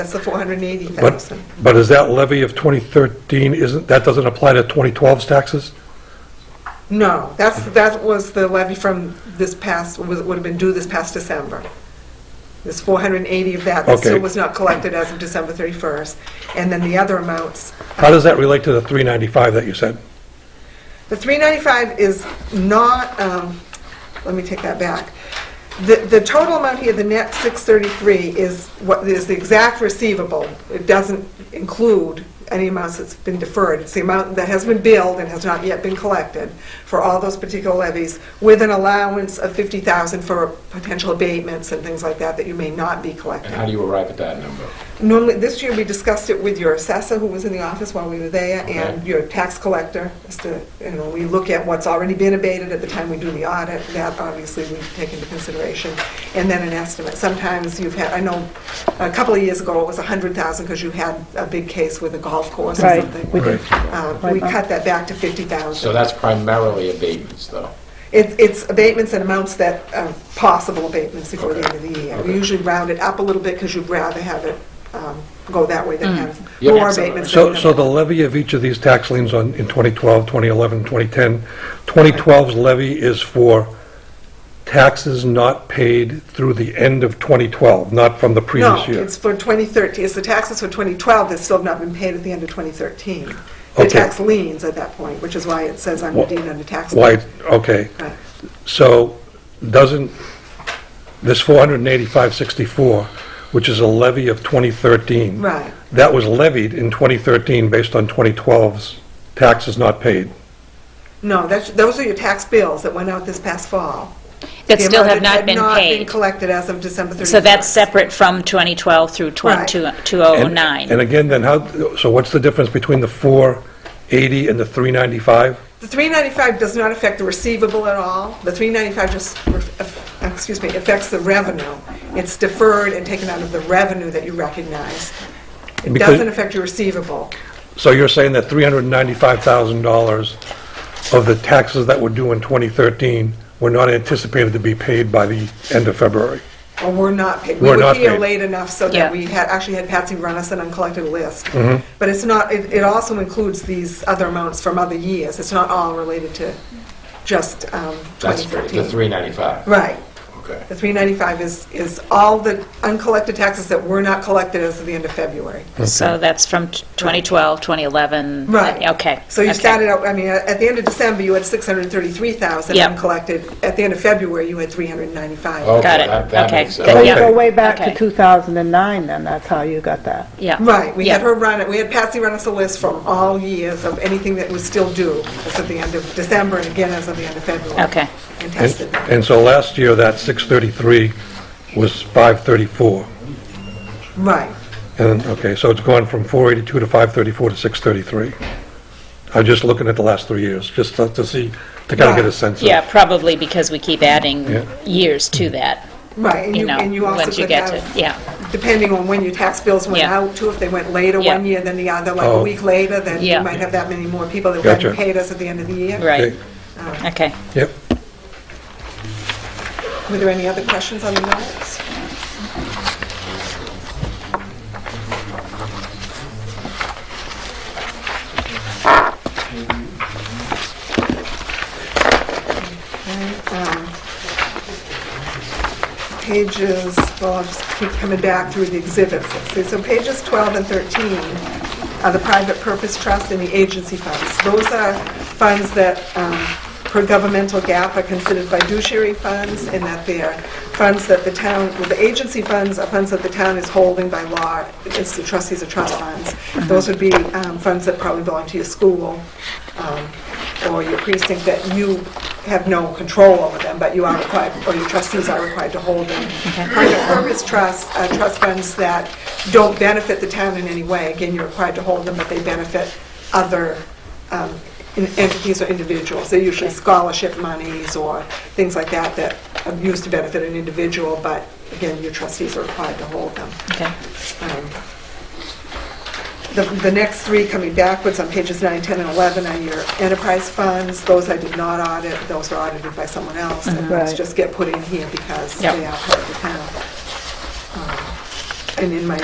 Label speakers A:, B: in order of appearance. A: That's the 480,000.
B: But, but is that levy of 2013, isn't, that doesn't apply to 2012's taxes?
A: No, that's, that was the levy from this past, was- would have been due this past December. There's 480 of that that still
B: Okay.
A: was not collected as of December 31st. And then the other amounts,
B: How does that relate to the 395 that you said?
A: the 395 is not, um, let me take that back. The, the total amount here, the net 633, is what, is the exact receivable. It doesn't include any amounts that's been deferred. It's the amount that has been billed and has not yet been collected for all those particular levies, with an allowance of 50,000 for potential abatements and things like that that you may not be collecting.
C: And how do you arrive at that number?
A: Normally, this year, we discussed it with your assessor, who was in the office while we were there, and
C: Okay.
A: your tax collector, as to, you know, we look at what's already been abated at the time we do the audit, that obviously we take into consideration, and then an estimate. Sometimes you've had, I know, a couple of years ago, it was 100,000, because you had a big case with a golf course or
D: Right,
A: something.
D: we did.
A: Uh, We cut that back to 50,000.
C: So that's primarily abatements, though.
A: It's, it's abatements and amounts that, are possible abatements before the end of the year. We
C: Okay.
A: usually round it up a little bit because you'd rather have it um, go that way
D: Mm.
A: than have
C: Yeah,
A: more
C: absolutely.
A: abatements.
B: So,
A: than-
B: so the levy of each of these tax liens on, in 2012, 2011, 2010, 2012's levy is for taxes not paid through the end of 2012, not from the
A: No,
B: previous year?
A: it's for 2013, it's the taxes for 2012 that still have not been paid at the end of 2013. The
B: Okay.
A: tax liens at that point, which is why it says I'm
B: Wha-
A: deemed under tax. lien.
B: Why, okay.
A: Right.
B: So doesn't this 485.64, which is a levy of 2013?
A: Right.
B: That was levied in 2013 based on 2012's taxes not paid.
A: No, that's, those are your tax bills that went out this past fall.
D: That
A: The
D: still
A: amount
D: have not
A: had
D: been
A: not been
D: paid.
A: collected as of December 31st.
D: So that's separate from 2012 through
A: Right.
D: 20-
B: And-
D: 2009.
B: And again, then how, so what's the difference between the 480 and the 395?
A: The 395 does not affect the receivable at all. The 395 just, ref- uh, excuse me, affects the revenue. It's deferred and taken out of the revenue that you recognize. It
B: Because-
A: doesn't affect your receivable.
B: So you're saying that $395,000 of the taxes that were due in 2013 were not anticipated to be paid by the end of February?
A: Well, we're not paid.
B: We're not
A: We were here
B: paid.
A: late enough so
D: Yeah.
A: that we had, actually had Patsy run us an uncollected list.
B: Mm-hmm.
A: But it's not, it it also includes these other amounts from other years. It's not all related to just um,
C: That's the
A: 2013.
C: 395.
A: Right.
C: Okay.
A: The 395 is, is all the uncollected taxes that were not collected as of the end of February.
D: So that's from t- 2012, 2011.
A: Right.
D: Okay.
A: So you
D: okay.
A: started out, I mean, at the end of December, you had 633,000
D: Yep.
A: uncollected. At the end of February, you had 395.
B: Oh.
C: Okay,
D: Got it.
C: that- That
D: Okay.
C: makes
B: So
D: Okay.
C: sense.
E: You go way back
D: Okay.
E: to 2009, then, that's how you got that.
D: Yeah.
A: Right, we had
D: Yeah.
A: her run it, we had Patsy run us a list from all years of anything that was still due, as of the end of December, and again as of the end of February.
D: Okay.
A: And
B: And-
A: tested that.
B: And so last year, that 633 was 534.
A: Right,
B: And, okay, so it's gone from 482 to 534 to 633. I'm just looking at the last three years, just to to see, to kind of get a sense of.
D: Yeah, probably because we keep adding
B: Yeah.
D: years to that,
A: right, and
D: you
A: you,
D: know,
A: and you also
D: once you
A: could
D: get to,
A: have,
D: yeah.
A: depending on when your tax bills went
D: Yeah.
A: out, too, if they went later
D: Yeah.
A: one year than the other, like a
B: Oh.
A: week later, then you
D: Yeah.
A: might have that many more people that hadn't
B: Gotcha.
A: paid us at the end of the year.
D: Right.
B: Okay.
D: Okay.
B: Yep.
A: Were there any other questions on the minutes? Okay, um, Pages, well, I'll just keep coming back through the exhibits. See, So pages 12 and 13 are the private purpose trust and the agency funds. Those are funds that, um, per governmental gap, are considered fiduciary funds in that they're funds that the town, well, the agency funds are funds that the town is holding by law, it's the trustees of trust funds. Those would be um, funds that probably belong to your school, um, or your precinct that you have no control over them, but you are required, or your trustees are required to hold them. Private purpose trusts, uh, trust funds that don't benefit the town in any way, again, you're required to hold them, but they benefit other um, in- entities or individuals. They're usually scholarship monies or things like that that are used to benefit an individual, but again, your trustees are required to hold them.
D: Okay.
A: Um, The the next three coming backwards on pages 9, 10, and 11 are your enterprise funds. Those I did not audit, those are audited by someone else. And those
E: Right.
A: just get put in here because
D: Yep.
A: they are part of the town. Um, And in my